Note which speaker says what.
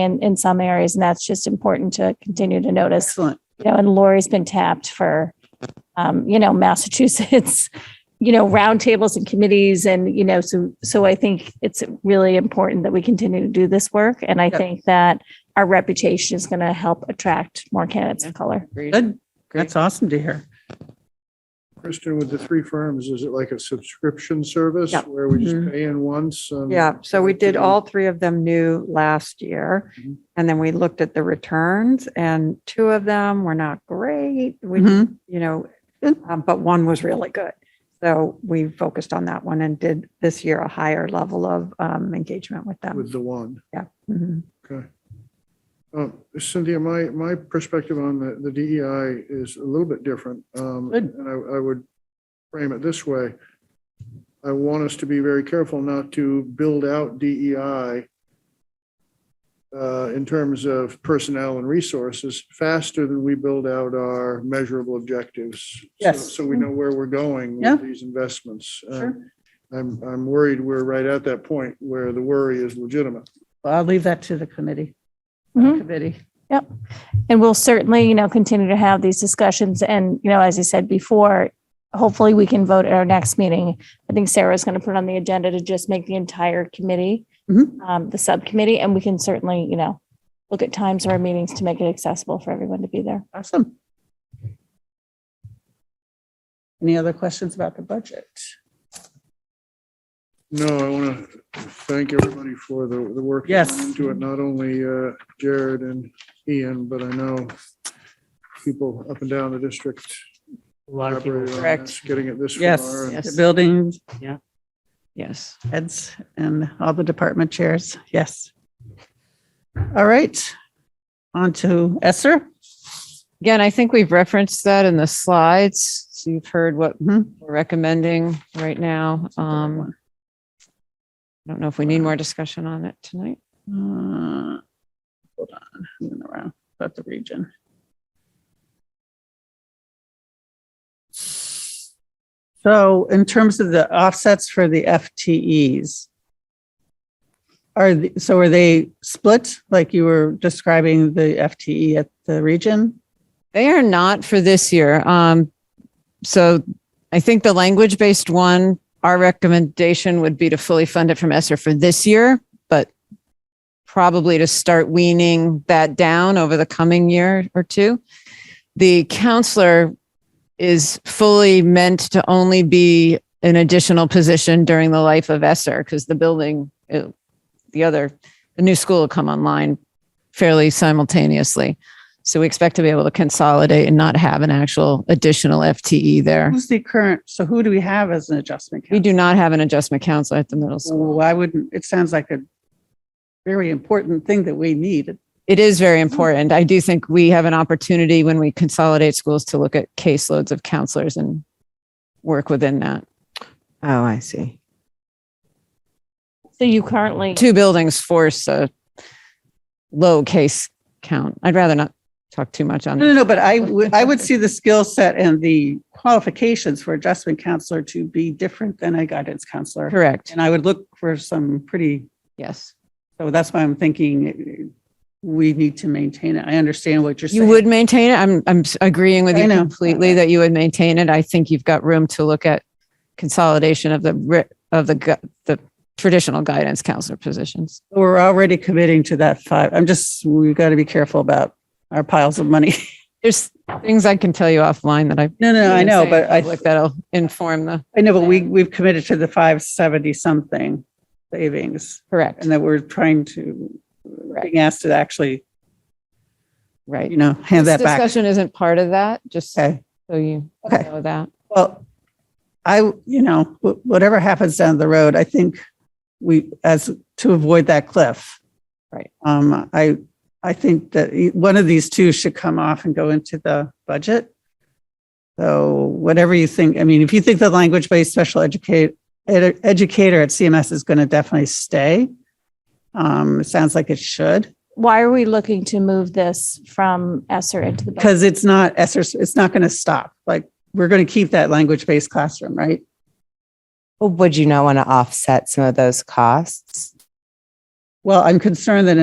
Speaker 1: in, in some areas. And that's just important to continue to notice.
Speaker 2: Excellent.
Speaker 1: You know, and Lori's been tapped for, um, you know, Massachusetts, you know, roundtables and committees. And, you know, so, so I think it's really important that we continue to do this work. And I
Speaker 2: Yep.
Speaker 1: think that our reputation is going to help attract more candidates of color.
Speaker 2: Good. That's awesome to hear.
Speaker 3: Kristen, with the three firms, is it like a subscription service
Speaker 4: Yeah.
Speaker 3: where we just
Speaker 2: Mhm.
Speaker 3: pay in once? and-
Speaker 4: Yeah, so we did
Speaker 3: Mhm.
Speaker 4: all three of them new last year.
Speaker 3: Mhm.
Speaker 4: And then we looked at the returns and two of them were not great. We, you
Speaker 2: Mhm.
Speaker 4: know,
Speaker 2: Good.
Speaker 4: um, but one was really good. So we focused on that one and did this year a higher level of um, engagement with them.
Speaker 3: With the one,
Speaker 4: Mhm.
Speaker 3: okay. Um, Cynthia, my, my perspective on the, the DEI is a little bit different. um,
Speaker 2: Good.
Speaker 3: And I, I would frame it this way. I want us to be very careful not to build out DEI uh, in terms of personnel and resources faster than we build out our measurable objectives. so-
Speaker 2: Yes.
Speaker 3: So we know where we're going
Speaker 2: Yeah.
Speaker 3: with these investments. Uh,
Speaker 2: Sure.
Speaker 3: I'm, I'm worried we're right at that point where the worry is legitimate.
Speaker 2: Well, I'll leave that to the committee.
Speaker 1: Mhm.
Speaker 2: Committee.
Speaker 1: And we'll certainly, you know, continue to have these discussions. And, you know, as I said before, hopefully we can vote at our next meeting. I think Sarah's going to put on the agenda to just make the entire committee,
Speaker 2: Mhm.
Speaker 1: um, the subcommittee, and we can certainly, you know, look at times of our meetings to make it accessible for everyone to be there.
Speaker 2: Awesome. Any other questions about the budget?
Speaker 3: No, I want to thank everybody for the, the work. that
Speaker 2: Yes.
Speaker 3: went Into it, not only uh, Jared and Ian, but I know people up and down the district.
Speaker 5: A lot of people,
Speaker 3: collaborated on
Speaker 2: Correct.
Speaker 3: this, Getting it this far.
Speaker 2: Yes,
Speaker 3: and
Speaker 2: the
Speaker 5: Yes.
Speaker 2: building
Speaker 5: yes.
Speaker 2: heads and all the department chairs. Yes. All right. On to Esther.
Speaker 6: Again, I think we've referenced that in the slides. So you've heard what
Speaker 2: Mhm.
Speaker 6: we're recommending right now. Um, I don't know if we need more discussion on it tonight.
Speaker 2: Uh, Hold on, I'm going around, about the region. So in terms of the offsets for the FTEs, are, the- so are they split, like you were describing the FTE at the region?
Speaker 6: They are not for this year. Um, so I think the language based one, our recommendation would be to fully fund it from ESSER for this year, but probably to start weaning that down over the coming year or two. The counselor is fully meant to only be an additional position during the life of ESSER because the building, it- the other, the new school will come online fairly simultaneously. So we expect to be able to consolidate and not have an actual additional FTE there.
Speaker 2: Who's the current, so who do we have as an adjustment?
Speaker 6: We
Speaker 2: count?
Speaker 6: do not have an adjustment counselor at the middle
Speaker 2: So
Speaker 6: school.
Speaker 2: why wouldn't, it sounds like a very important thing that we need.
Speaker 6: It is very important. I do think we have an opportunity when we consolidate schools to look at caseloads of counselors and work within that.
Speaker 7: Oh, I see.
Speaker 1: So you currently,
Speaker 6: Two buildings force a low case count. I'd rather not talk too much on
Speaker 2: No,
Speaker 6: that.
Speaker 2: no, no, but I would, I would see the skill set and the qualifications for adjustment counselor to be different than a guidance counselor.
Speaker 6: Correct.
Speaker 2: And I would look for some pretty,
Speaker 6: Yes.
Speaker 2: so that's why I'm thinking we need to maintain it. I understand what you're saying.
Speaker 6: You would maintain it. I'm, I'm s- agreeing with
Speaker 2: I
Speaker 6: you
Speaker 2: know.
Speaker 6: completely that you would maintain it. I think you've got room to look at consolidation of the, ri- of the, gu- the traditional guidance counselor positions.
Speaker 2: We're already committing to that five. I'm just, we've got to be careful about our piles of money.
Speaker 6: There's things I can tell you offline that I.
Speaker 2: No, no, I know, but I,
Speaker 6: Like that'll inform the.
Speaker 2: I know, but we, we've committed to the 570 something savings
Speaker 6: Correct.
Speaker 2: and that we're trying to, being asked to actually,
Speaker 6: Right.
Speaker 2: you know, hand
Speaker 6: This
Speaker 2: that back.
Speaker 6: Discussion isn't part of that, just so
Speaker 2: Okay.
Speaker 6: you
Speaker 2: Okay.
Speaker 6: know that.
Speaker 2: Well, I, you know, wh- whatever happens down the road, I think we, as to avoid that cliff.
Speaker 6: Right.
Speaker 2: Um, I, I think that e- one of these two should come off and go into the budget. So whatever you think, I mean, if you think the language-based special educate, ed- educator at CMS is going to definitely stay. Um, it sounds like it should,
Speaker 1: why are we looking to move this from ESER into the? budget?
Speaker 2: because it's not, ESER it's not going to stop. Like, we're going to keep that language-based classroom, right?
Speaker 7: Well, would you not want to offset some of those costs?
Speaker 2: Well, I'm concerned that